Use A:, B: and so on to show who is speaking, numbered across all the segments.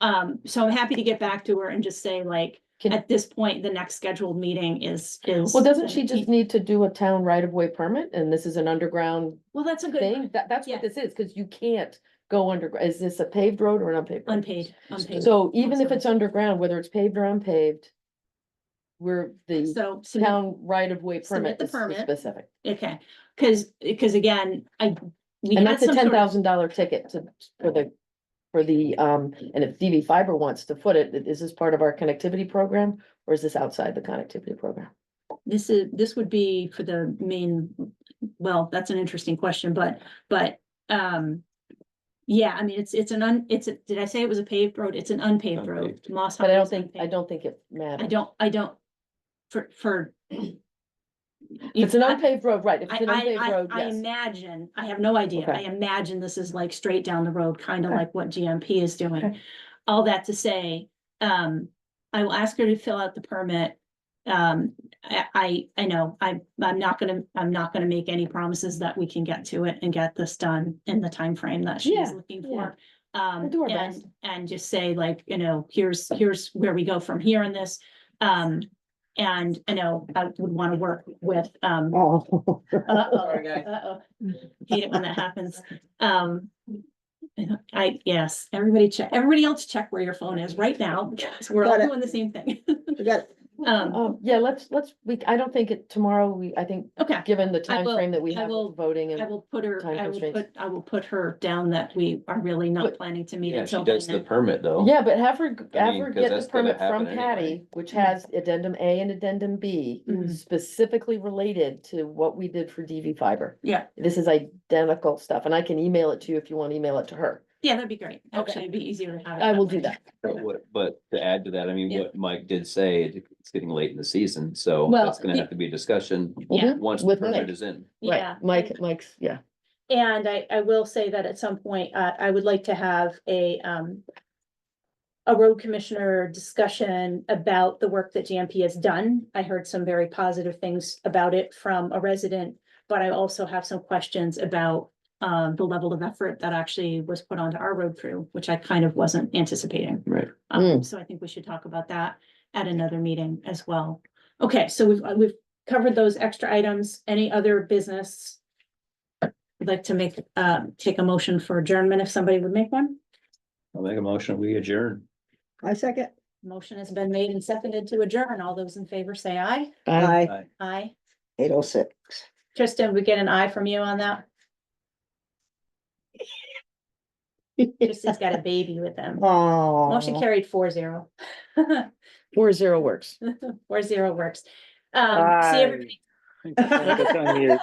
A: Um, so I'm happy to get back to her and just say like,
B: Can-
A: at this point, the next scheduled meeting is, is.
B: Well, doesn't she just need to do a town right of way permit and this is an underground
A: Well, that's a
B: thing?
A: good,
B: That, that's
A: Yeah.
B: what this is, cause you can't go under, is this a paved road or an unpaved? road?
A: unpaid, unpaid.
B: So even if
A: sorry.
B: it's underground, whether it's paved or unpaved, we're the
A: So, submit-
B: town right of way
A: submit
B: permit
A: the
B: is is
A: permit.
B: specific.
A: okay, cause, cause again, I. we
B: And
A: had
B: that's a
A: some sort
B: ten
A: of-
B: thousand dollar ticket to, for the, for the, um, and if DB fiber wants to foot it, is this part of our connectivity program? Or is this outside the connectivity program?
A: This is, this would be for the main, well, that's an interesting question, but, but, um. Yeah, I mean, it's, it's an un, it's, a did I say it was a paved road? It's an unpaved road.
C: Unpaved.
A: Moss
B: But I
A: Hall
B: don't
A: is
B: think, I
A: unpaved.
B: don't think it matters.
A: I don't, I don't. For, for.
B: If It's an
A: I-
B: unpaved road, right, if
A: I,
B: it's an unpaved
A: I, I,
B: road,
A: I
B: yes.
A: imagine, I have no idea,
B: Okay.
A: I imagine this is like straight down the road, kind of
B: Okay.
A: like what GMP is doing.
B: Okay.
A: All that to say, um, I will ask her to fill out the permit. Um, I, I, I know, I, I'm not gonna, I'm not gonna make any promises that we can get to it and get this done in the timeframe that she's
B: Yeah,
A: looking
B: yeah.
A: for. Um,
B: do our
A: and,
B: best.
A: and just say like, you know, here's, here's where we go from here in this. Um, and, you know, I would wanna work with, um,
D: Oh.
A: uh-oh,
C: Sorry, guys.
A: uh-oh. Hate it when that happens. Um, I, yes, everybody check, everybody else check where your phone is right now, because we're all
D: Got it.
A: doing the same thing.
D: You got it.
A: Um,
B: Um, yeah, let's, let's, we, I don't think it, tomorrow, we, I think,
A: okay,
B: given the
A: I
B: time
A: will-
B: frame that we
A: I
B: have
A: will-
B: with voting
A: I
B: and.
A: will put her,
B: Time
A: I will put,
B: constraints.
A: I will put her down that we are really not
B: But-
A: planning to meet
C: Yeah, she
A: until.
C: does the
A: Monday.
C: permit though.
B: Yeah, but have her,
C: I
B: have
C: mean,
B: her
C: 'cause
B: get
C: that's
B: the
C: gonna
B: permit from
C: happen anyway.
B: Patty, which
A: Mm-hmm.
B: has addendum A and addendum B.
A: Mhm.
B: Specifically related to what we did for DV fiber.
A: Yeah.
B: This is identical stuff, and I can email it to you if you want to email it to her.
A: Yeah, that'd be great. Actually,
B: Okay.
A: it'd be easier to have. it
B: I will
A: way.
B: do that.
C: But what, but to add to that, I mean,
A: Yeah.
C: what Mike did say, it- it's getting late in the season, so
A: Well,
C: that's gonna
A: the-
C: have to be a discussion
A: Yeah.
B: Mhm.
C: once the
B: With
C: permit
B: Mike.
C: is in.
B: Right,
A: Yeah.
B: Mike, Mike's, yeah.
A: And I, I will say that at some point, uh, I would like to have a, um. A road commissioner discussion about the work that GMP has done. I heard some very positive things about it from a resident. But I also have some questions about, um, the level of effort that actually was put onto our road crew, which I kind of wasn't anticipating.
C: Right.
A: Um, so I think we should talk about that at another meeting as well. Okay, so we've, uh, we've covered those extra items. Any other business? I'd like to make, uh, take a motion for adjournment if somebody would make one.
C: I'll make a motion, we adjourn.
D: I second.
A: Motion has been made and seconded to adjourn. All those in favor say aye.
B: Bye.
D: Aye,
C: Aye.
A: Aye.
D: eight oh six.
A: Tristan, we get an aye from you on that? Tristan's got a baby with them. Motion
D: Oh.
A: carried four zero.
B: Four zero works.
A: Four zero works. Um, see everybody.
E: It's on you.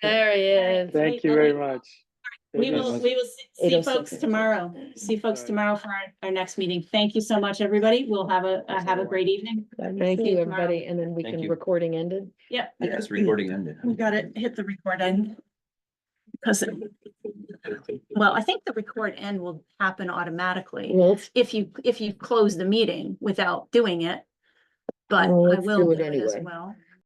B: There he is.
E: Thank you very much.
A: We will, we will see- see
B: 806.
A: folks tomorrow. See folks tomorrow for our, our next meeting. Thank you so much, everybody. We'll have a, uh, have a great evening.
B: Thank
A: See you
B: you,
A: tomorrow.
B: everybody, and then we
C: Thank
B: can,
C: you.
B: recording ended.
A: Yep.
C: Yes, recording ended.
A: We got it, hit the record end. Because, well, I think the record end will happen automatically
B: Well, let's,
A: if you, if you close the meeting without doing it. But I
B: Well, let's
A: will
B: do
A: do
B: it
A: it as
B: anyway.
A: well.